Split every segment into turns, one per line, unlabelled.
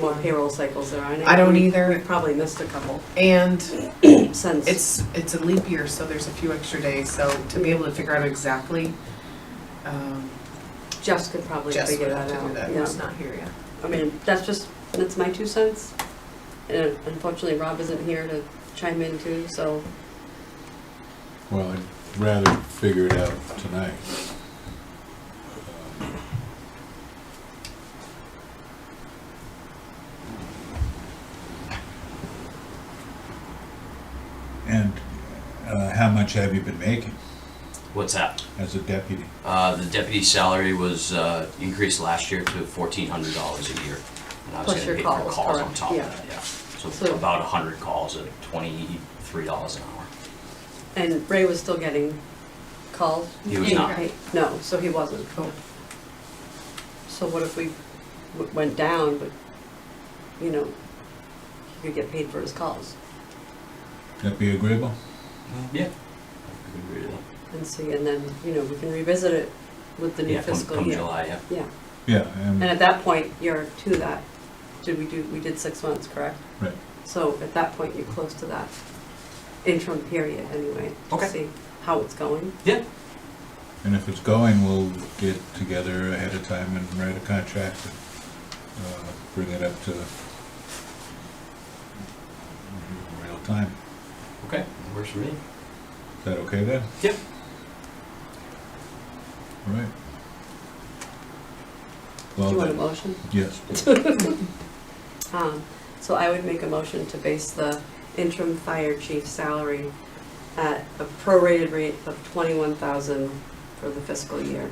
What payroll cycles there are.
I don't
We-
either.
We probably missed a couple
And
since.
it's, it's a leap year, so there's a few extra days, so to be able to figure out exactly, um,
Jess could probably
Jess
figure
would
that
have to do
out.
that,
yeah.
who's not here yet.
I mean, that's just, that's my two cents. And unfortunately, Rob isn't here to chime in too, so
Well, I'd rather figure it out tonight. And uh, how much have you been making
What's that?
as a deputy?
Uh, the deputy's salary was, uh, increased last year to fourteen hundred dollars a year. And I was
Plus
getting
your
paid for
calls,
on
correct,
top of
yeah.
that, yeah. So
So-
about a hundred calls at twenty-three dollars an hour.
And Ray was still getting calls?
He was not.
Right, No, so he wasn't. So what if we w- went down, but, you know, he could get paid for his calls
That be agreeable?
Yeah. I can agree to that.
and see, and then, you know, we can revisit it with the new
Yeah, come-
fiscal
Come
year.
July, yeah.
Yeah,
Yeah,
and
and,
at that point, you're to that. Did we do, we did six months, correct?
right.
So at that point, you're close to that interim period anyway. to
Okay.
See how it's going.
Yeah,
And if it's going, we'll get together ahead of time and write a contract and uh, bring it up to real time.
okay, works for me.
Is that okay then?
Yep.
All right.
Do
Well
you want a
then,
motion?
yes,
Um, So I would make a motion to base the interim fire chief salary at a prorated rate of twenty-one thousand for the fiscal year.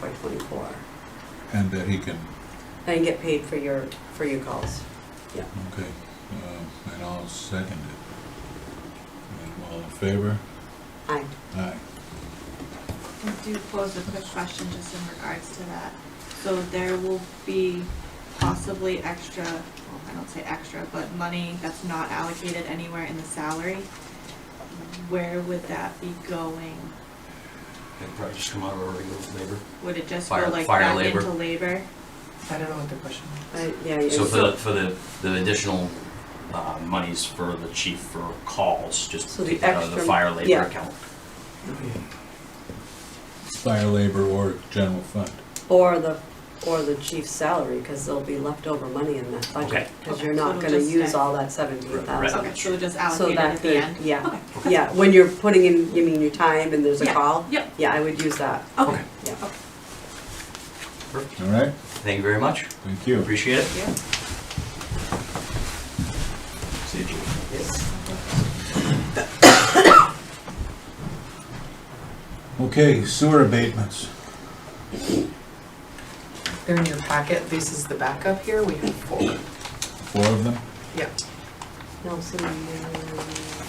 FY twenty-four,
and that he can,
and get paid for your, for your calls.
okay, um, and I'll second it. And All in favor?
Aye.
Aye.
I do pose a quick question just in regards to that. So there will be possibly extra, well, I don't say extra, but money that's not allocated anywhere in the salary. Where would that be going?
It'd probably just come out of our regular labor.
Would it just go
Fire-
like
fire
back
labor.
into labor?
I don't know what the question is.
I- Yeah, yeah,
So for the,
so,
for the, the additional, uh, monies for the chief for calls, just
So the
take that out of the
extra-
fire labor
yeah.
account.
Fire labor or general fund?
or the, or the chief's salary, because there'll be leftover money in that budget.
Okay.
Because
Okay,
you're
so
not
it'll
gonna
just
use
stay.
all that seventeen
Right.
thousand.
Okay, so just
So
allocated
that
at the
could,
end?
yeah,
Okay.
yeah, when you're putting in, you mean your time and there's a
Yeah,
call?
yep.
Yeah, I would use that,
Okay,
yeah.
All right,
Thank you very much,
thank you.
appreciate it.
yeah.
See you. Chief.
Okay, sewer abatements.
They're in your packet, this is the backup here, we have four.
Four of them?
Yeah.
Nelson, uh, Minnesota's,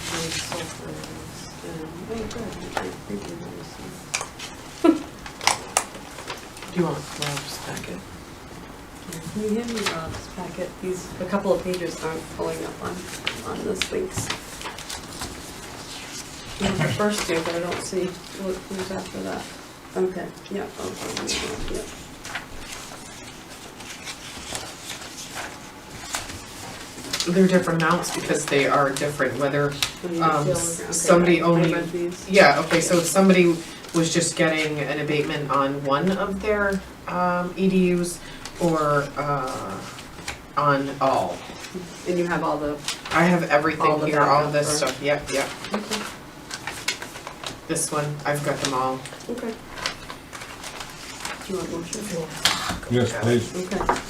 um, oh, good, I think it was,
Do you want Rob's packet?
uh, Can you hand me Rob's packet? These, a couple of pages aren't pulling up on, on this links. You have the first two, but I don't see what, who's after that. Okay, Um, yeah, okay, yeah.
They're different amounts because they are different, whether,
What do you
Um,
feel?
s-
Okay,
somebody
I- I
only-
read these.
yeah, okay, so if somebody was just getting an abatement on one of their, um, EDUs or, uh, on all.
And you have all the
I have
All
everything
the
here, all
backup,
this
right.
stuff, yep, yep,
Okay,
this one, I've got them all.
okay. Do you want motion?
Yes, please.
Okay.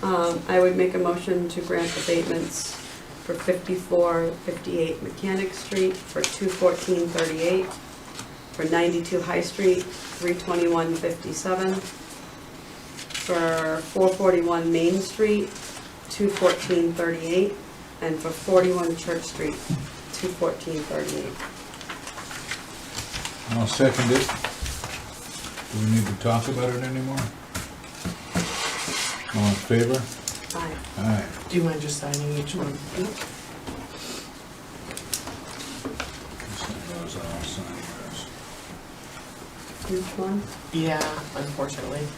Um, I would make a motion to grant abatements for 54, 58 Mechanic Street, for 21438, for 92 High Street, 32157, for 441 Main Street, 21438, and for 41 Church Street, 21438.
I'll second it. Do we need to talk about it anymore? All in favor?
Aye.
Aye.
Do you mind just signing each one?
Just sign those, and I'll sign yours.
Which one?
Yeah, unfortunately.